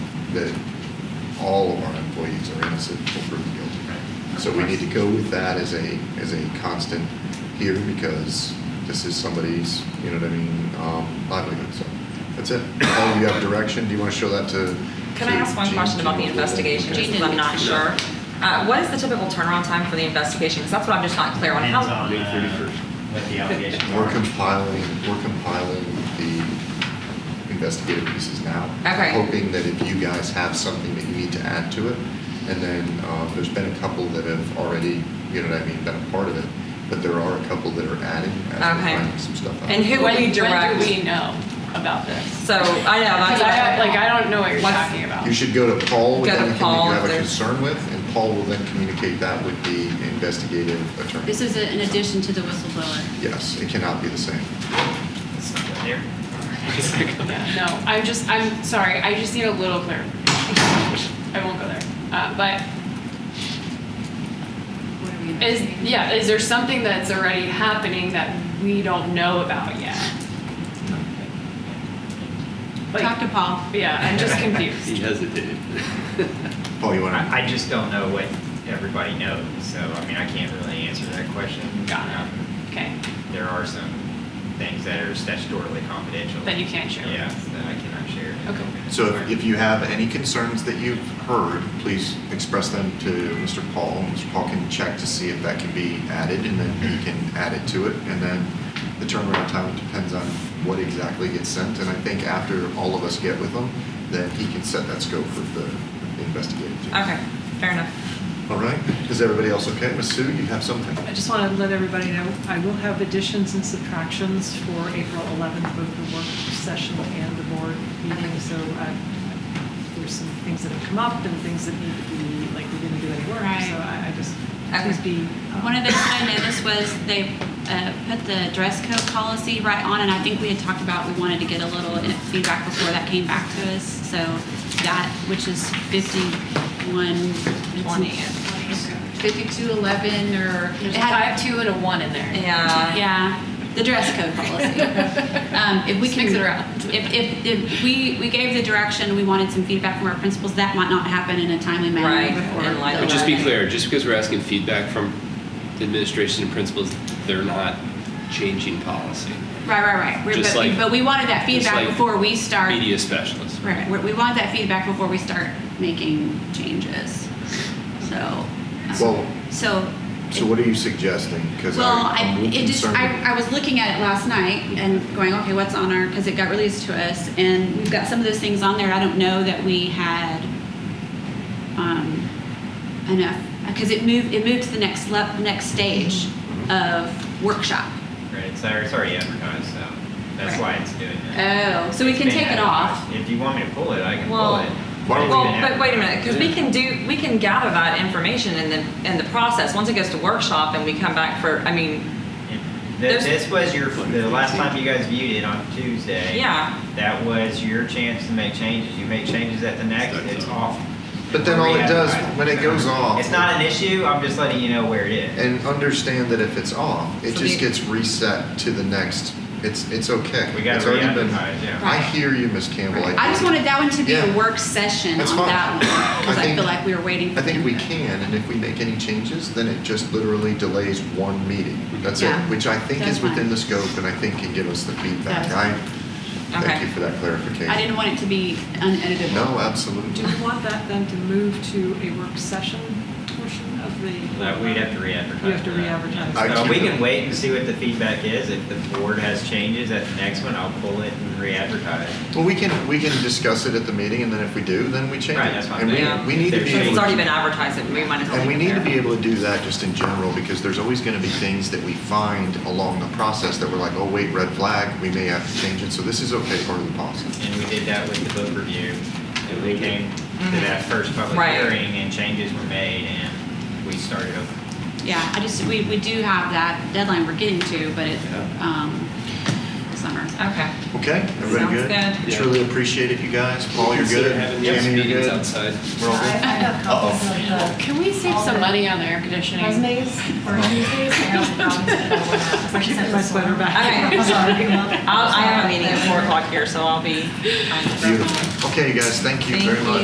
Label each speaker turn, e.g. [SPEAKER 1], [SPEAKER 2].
[SPEAKER 1] that all of our employees are innocent or proven guilty. So we need to go with that as a, as a constant here because this is somebody's, you know what I mean, um, livelihood, so that's it. Oh, you have direction, do you want to show that to?
[SPEAKER 2] Can I
[SPEAKER 1] to
[SPEAKER 2] ask one
[SPEAKER 1] Gene?
[SPEAKER 2] question about the investigation, just because I'm not sure? Uh, What is the typical turnaround time for the investigation? Because that's what I'm just not clear on.
[SPEAKER 3] Depends
[SPEAKER 2] How,
[SPEAKER 3] on
[SPEAKER 4] May 31st.
[SPEAKER 3] uh, what the allegations
[SPEAKER 1] We're
[SPEAKER 3] are.
[SPEAKER 1] compiling, we're compiling the investigative pieces now.
[SPEAKER 2] Okay.
[SPEAKER 1] Hoping that if you guys have something that you need to add to it, and then, uh, there's been a couple that have already, you know what I mean, been a part of it, but there are a couple that are adding, as
[SPEAKER 2] Okay.
[SPEAKER 1] we're finding some stuff out.
[SPEAKER 2] And who-
[SPEAKER 5] When-
[SPEAKER 2] we direct-
[SPEAKER 5] When do we know about this?
[SPEAKER 2] so, I know, that's.
[SPEAKER 5] Because I, like, I don't know what you're
[SPEAKER 2] What's-
[SPEAKER 5] talking about.
[SPEAKER 1] You should go to Paul with
[SPEAKER 2] Go to
[SPEAKER 1] anything that
[SPEAKER 2] Paul
[SPEAKER 1] you
[SPEAKER 2] if
[SPEAKER 1] have a
[SPEAKER 2] there's-
[SPEAKER 1] concern with, and Paul will then communicate that with the investigative attorney.
[SPEAKER 6] This is in addition to the whistleblower.
[SPEAKER 1] Yes, it cannot be the same.
[SPEAKER 3] It's not there.
[SPEAKER 5] Yeah, No, I'm just, I'm sorry, I just need a little clarification. I won't go there. Uh, but
[SPEAKER 6] What are we
[SPEAKER 5] is,
[SPEAKER 6] investigating?
[SPEAKER 5] yeah, is there something that's already happening that we don't know about yet?
[SPEAKER 6] Talk
[SPEAKER 5] Like,
[SPEAKER 6] to Paul.
[SPEAKER 5] yeah, I'm just
[SPEAKER 4] He
[SPEAKER 5] confused.
[SPEAKER 4] hesitated.
[SPEAKER 1] Paul, you want to?
[SPEAKER 3] I I just don't know what everybody knows, so, I mean, I can't really answer that question.
[SPEAKER 5] Got it.
[SPEAKER 3] Um,
[SPEAKER 5] Okay,
[SPEAKER 3] There are some things that are statutorily confidential.
[SPEAKER 5] that you can't share.
[SPEAKER 3] Yeah, that I cannot share.
[SPEAKER 5] Okay.
[SPEAKER 1] So if- if you have any concerns that you've heard, please express them to Mr. Paul. and Mr. Paul can check to see if that can be added, and then he can add it to it. And then the turnaround time depends on what exactly gets sent. And I think after all of us get with him, then he can set that scope for the investigative team.
[SPEAKER 2] Okay, fair enough.
[SPEAKER 1] All right? Is everybody else okay? Ms. Sue, you have something?
[SPEAKER 7] I just want to let everybody know, I will have additions and subtractions for April 11th, both the work session and the board meeting. So uh, there's some things that have come up and things that need to be, like, we didn't do any work.
[SPEAKER 6] Right.
[SPEAKER 7] So I I just,
[SPEAKER 2] Okay.
[SPEAKER 7] please be. um,
[SPEAKER 6] One of the things I noticed was they uh, put the dress code policy right on, and I think we had talked about we wanted to get a little feedback before that came back to us. So that, which is 51.
[SPEAKER 2] Twenty.
[SPEAKER 5] 5211 or. There's
[SPEAKER 6] It
[SPEAKER 5] a
[SPEAKER 6] had-
[SPEAKER 5] five, two, and a one in there.
[SPEAKER 2] Yeah.
[SPEAKER 6] Yeah, the dress code policy. Um, If we
[SPEAKER 5] Just
[SPEAKER 6] can.
[SPEAKER 5] mix it around.
[SPEAKER 6] If, if, if we, we gave the direction, we wanted some feedback from our principals, that might not happen in a timely
[SPEAKER 2] Right,
[SPEAKER 6] manner before.
[SPEAKER 2] and like-
[SPEAKER 6] the
[SPEAKER 2] But
[SPEAKER 4] But just be
[SPEAKER 6] 11th.
[SPEAKER 4] clear, just because we're asking feedback from the administration and principals, they're not changing policy.
[SPEAKER 6] Right, right, right. We're-
[SPEAKER 4] Just
[SPEAKER 6] but,
[SPEAKER 4] like-
[SPEAKER 6] but we wanted that
[SPEAKER 4] just
[SPEAKER 6] feedback
[SPEAKER 4] like
[SPEAKER 6] before we start.
[SPEAKER 4] Media specialists.
[SPEAKER 6] Right, right. We want that feedback before we start making changes. So. um,
[SPEAKER 1] Well,
[SPEAKER 6] So.
[SPEAKER 1] So what are you suggesting? Because
[SPEAKER 6] Well, I,
[SPEAKER 1] I'm
[SPEAKER 6] it just,
[SPEAKER 1] concerned.
[SPEAKER 6] I, I was looking at it last night and going, okay, what's on our, because it got released to us, and we've got some of those things on there, I don't know that we had, um, enough, because it moved, it moved to the next le, next stage of workshop.
[SPEAKER 3] Right, it's already it's already advertised, so that's why it's doing that.
[SPEAKER 6] Oh, so we
[SPEAKER 3] It's
[SPEAKER 6] can
[SPEAKER 3] been
[SPEAKER 6] take it off.
[SPEAKER 3] advertised. If you want me to pull it, I can pull
[SPEAKER 2] Well-
[SPEAKER 3] it.
[SPEAKER 1] Why don't
[SPEAKER 3] It's
[SPEAKER 2] Well,
[SPEAKER 3] been
[SPEAKER 2] but wait a minute, because we
[SPEAKER 4] Yeah.
[SPEAKER 2] can do, we can gather that information in the, in the process. Once it goes to workshop and we come back for, I mean,
[SPEAKER 3] This,
[SPEAKER 2] There's-
[SPEAKER 3] this was your, the last time you guys viewed it on Tuesday.
[SPEAKER 2] Yeah.
[SPEAKER 3] That was your chance to make changes. You make changes at the next, it's off.
[SPEAKER 1] But then all it does, when it goes off.
[SPEAKER 3] It's not an issue, I'm just letting you know where it is.
[SPEAKER 1] and understand that if it's off, it
[SPEAKER 2] So
[SPEAKER 1] just
[SPEAKER 2] the-
[SPEAKER 1] gets reset to the next. It's it's okay.
[SPEAKER 3] We gotta
[SPEAKER 1] it's already been.
[SPEAKER 3] re-advertise, yeah.
[SPEAKER 1] I hear you, Miss Campbell.
[SPEAKER 6] I just wanted that one to be
[SPEAKER 1] Yeah.
[SPEAKER 6] a work session
[SPEAKER 1] That's
[SPEAKER 6] on
[SPEAKER 1] fine.
[SPEAKER 6] that one, because
[SPEAKER 1] I
[SPEAKER 6] I
[SPEAKER 1] think-
[SPEAKER 6] feel like we were waiting for
[SPEAKER 1] I think we
[SPEAKER 6] input.
[SPEAKER 1] can, and if we make any changes, then it just literally delays one meeting. That's
[SPEAKER 6] Yeah.
[SPEAKER 1] it, which I think
[SPEAKER 6] That's
[SPEAKER 1] is within
[SPEAKER 6] fine.
[SPEAKER 1] the scope, and I think can give us the feedback.
[SPEAKER 6] That's
[SPEAKER 1] I
[SPEAKER 6] fine.
[SPEAKER 1] thank
[SPEAKER 2] Okay.
[SPEAKER 1] you for that clarification.
[SPEAKER 6] I didn't want it to be uneditable.
[SPEAKER 1] No,
[SPEAKER 7] Do
[SPEAKER 1] absolutely.
[SPEAKER 7] you want that then to move to a work session portion of the?
[SPEAKER 3] That we'd have to re-advertise.
[SPEAKER 7] You have to
[SPEAKER 3] that.
[SPEAKER 7] re-advertise.
[SPEAKER 1] I
[SPEAKER 3] So we
[SPEAKER 1] keep it.
[SPEAKER 3] can wait and see what the feedback is. If the board has changes at the next one, I'll pull it and re-advertise.
[SPEAKER 1] Well, we can we can discuss it at the meeting, and then if we do, then we change
[SPEAKER 3] Right,
[SPEAKER 1] it.
[SPEAKER 3] that's fine.
[SPEAKER 1] And we,
[SPEAKER 2] Yeah.
[SPEAKER 1] we need to
[SPEAKER 3] If
[SPEAKER 1] be
[SPEAKER 2] since
[SPEAKER 3] there's-
[SPEAKER 1] able
[SPEAKER 2] it's
[SPEAKER 1] to
[SPEAKER 2] already been advertised, we might as well.
[SPEAKER 1] And we
[SPEAKER 2] leave
[SPEAKER 1] need
[SPEAKER 2] it
[SPEAKER 1] to be
[SPEAKER 2] there.
[SPEAKER 1] able to do that just in general, because there's always gonna be things that we find along the process that we're like, oh, wait, red flag, we may have to change it, so this is okay, part of the policy.
[SPEAKER 3] And we did that with the book review. And we came to
[SPEAKER 7] Mm-hmm.
[SPEAKER 2] Mhm.
[SPEAKER 3] that first public
[SPEAKER 2] Right.
[SPEAKER 3] hearing and changes were made and we started over.
[SPEAKER 6] Yeah, I just, we, we do have that deadline we're getting to, but it, um, summer. Uh,
[SPEAKER 2] Okay.
[SPEAKER 1] Okay, everybody good?
[SPEAKER 2] Sounds
[SPEAKER 4] good.
[SPEAKER 1] Truly appreciate it, you guys. Paul, you're
[SPEAKER 4] Consider
[SPEAKER 1] good?
[SPEAKER 4] having these
[SPEAKER 1] Jamie, you're
[SPEAKER 4] meetings
[SPEAKER 1] good?
[SPEAKER 4] outside.
[SPEAKER 1] We're all good?
[SPEAKER 5] Can we save some money on the air conditioning?
[SPEAKER 7] I should get my sweater back.
[SPEAKER 2] Okay.
[SPEAKER 7] Sorry.
[SPEAKER 2] I'll, I have a meeting at four o'clock here, so I'll be. on the-
[SPEAKER 1] Beautiful. Okay, you guys, thank you
[SPEAKER 2] Thank
[SPEAKER 1] very much.